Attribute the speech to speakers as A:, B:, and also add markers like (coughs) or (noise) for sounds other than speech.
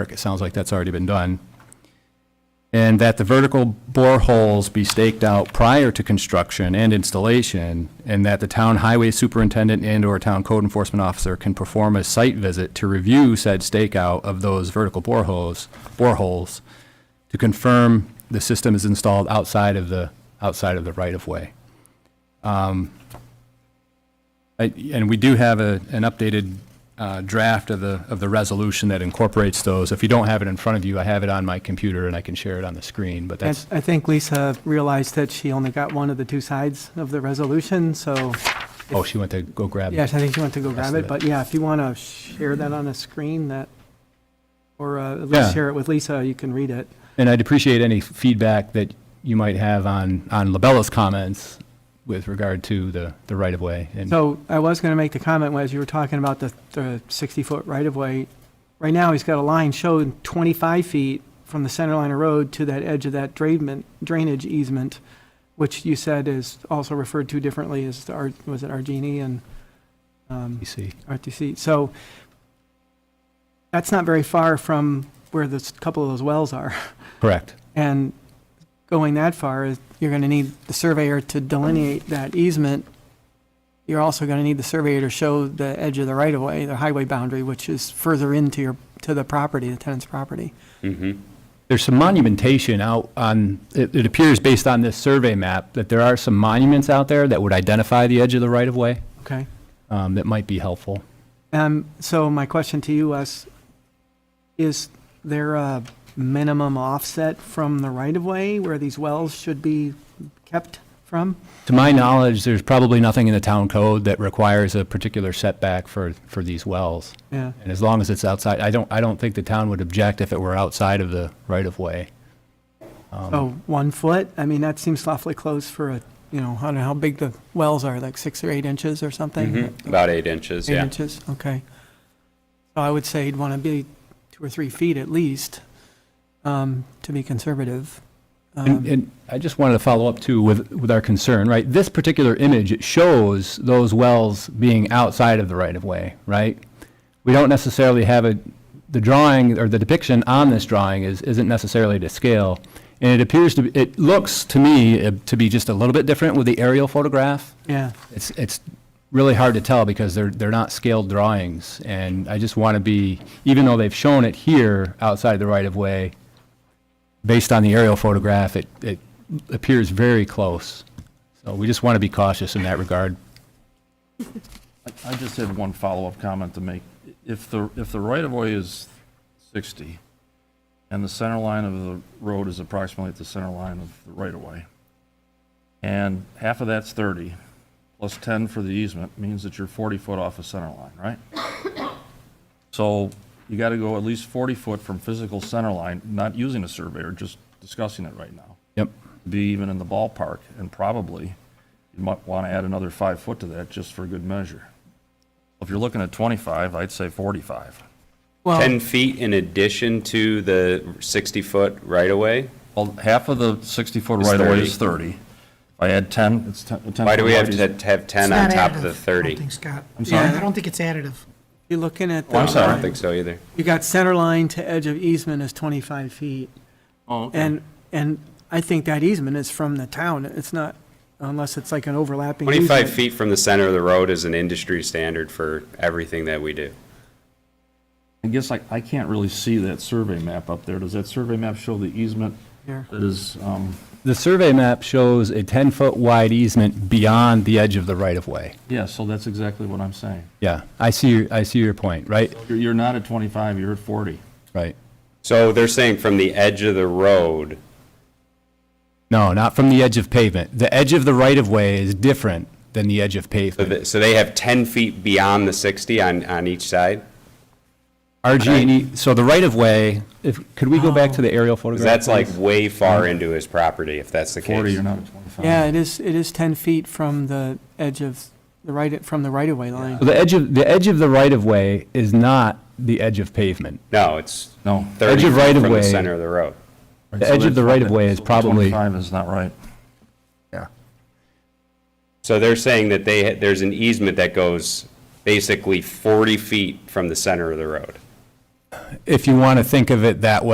A: It sounds like that's already been done. And that the vertical boreholes be staked out prior to construction and installation, and that the town highway superintendent and/or town code enforcement officer can perform a site visit to review said stakeout of those vertical boreholes, boreholes, to confirm the system is installed outside of the, outside of the right-of-way. I- And we do have a, an updated uh, draft of the, of the resolution that incorporates those. If you don't have it in front of you, I have it on my computer and I can share it on the screen, but
B: I
A: that's,
B: I think Lisa realized that she only got one of the two sides of the resolution, so,
A: oh, she went to go grab
B: yes,
A: it.
B: I think she went to go
A: Rest
B: grab
A: of
B: it,
A: it.
B: but yeah, if you want to share that on a screen, that, or uh, at
A: Yeah.
B: least share it with Lisa, you can read it.
A: And I'd appreciate any feedback that you might have on, on LaBella's comments with regard to the, the right-of-way. And
B: So I was going to make the comment as you were talking about the 60-foot right-of-way. Right now, he's got a line showing 25 feet from the center line of road to that edge of that drainment- drainage easement, which you said is also referred to differently as, the R- was it Argini and um,
A: you see,
B: RTC? So that's not very far from where this, couple of those wells are.
A: correct.
B: And going that far, is- you're going to need the surveyor to delineate that easement. You're also going to need the surveyor to show the edge of the right-of-way, the highway boundary, which is further into your, to the property, the tenant's property.
A: There's some monumentation out on, it, it appears based on this survey map, that there are some monuments out there that would identify the edge of the right-of-way,
B: Okay?
A: um, that might be helpful.
B: Um, so my question to you, Wes, is there a minimum offset from the right-of-way where these wells should be kept from?
A: To my knowledge, there's probably nothing in the town code that requires a particular setback for, for these wells.
B: Yeah.
A: And as long as it's outside, I don't, I don't think the town would object if it were outside of the right-of-way.
C: Um,
B: Oh, one foot? I mean, that seems awfully close for a, you know, I don't know how big the wells are, like six or eight inches or something?
C: Mhm, About eight inches,
B: Eight
C: yeah.
B: inches, okay. So I would say you'd want to be two or three feet at least, um, to be conservative.
A: And, and I just wanted to follow up too with, with our concern, right? This particular image, it shows those wells being outside of the right-of-way, right? We don't necessarily have a, the drawing or the depiction on this drawing is, isn't necessarily to scale. And it appears to, be it looks to me uh, to be just a little bit different with the aerial photograph.
B: Yeah,
A: It's, it's really hard to tell because they're, they're not scaled drawings, and I just want to be, even though they've shown it here outside the right-of-way, based on the aerial photograph, it, it appears very close. So we just want to be cautious in that regard.
D: I just had one follow-up comment to make. If the, if the right-of-way is 60, and the center line of the road is approximately at the center line of the right-of-way, and half of that's 30, plus 10 for the easement, means that you're 40 foot off the center line, right? (coughs) So you got to go at least 40 foot from physical center line, not using a surveyor, just discussing it right now
A: Yep,
D: be even in the ballpark, and probably you might want to add another five foot to that just for good measure. If you're looking at 25, I'd say 45.
B: well,
C: 10 feet in addition to the 60-foot right-of-way?
D: Well, half of the 60-foot
C: It's
D: right-of-way is 30. If I add 10, it's 10. a 10
C: Why do we have
D: foot
C: to have 10 on
E: It's not
C: top of
E: additive,
C: the
E: I don't
C: 30?
E: think, Scott.
D: I'm sorry?
E: I don't think it's additive.
B: you're looking at,
C: Well, Oh, I'm
B: the
C: sorry, I don't think so either.
B: you got center line to edge of easement is 25 feet.
D: Oh, okay.
B: And, and I think that easement is from the town. It's not, unless it's like an overlapping easement.
C: 25 feet from the center of the road is an industry standard for everything that we do.
D: I guess I, I can't really see that survey map up there. Does that survey map show the easement
B: Here.
D: that is, um,
A: the survey map shows a 10-foot wide easement beyond the edge of the right-of-way.
D: yeah, so that's exactly what I'm saying.
A: Yeah, I see, your- I see your point, right?
D: You're, you're not at 25, you're at 40.
A: Right.
C: So they're saying from the edge of the road,
A: No, not from the edge of pavement. The edge of the right-of-way is different than the edge of
C: so
A: pavement.
C: th- so they have 10 feet beyond the 60 on, on each side?
A: RG&E, E, so the right-of-way, if, could we go back to the aerial photograph?
C: Because Oh. that's like
A: please?
C: way far into his property, if that's the
D: 40,
C: case.
D: you're not at 25.
B: Yeah, it is, it is 10 feet from the edge of, the right, from the right-of-way line.
A: So The edge of, the edge of the right-of-way is not the edge of pavement.
C: No, it's
D: No.
C: 30
A: Edge of
C: feet from the
A: right-of-way.
C: center of the road.
A: The edge of the right-of-way is
D: So
A: probably,
D: 25 is not right.
C: So they're saying that they, there's an easement that goes basically 40 feet from the center of the road.
A: if you want to think of it that way.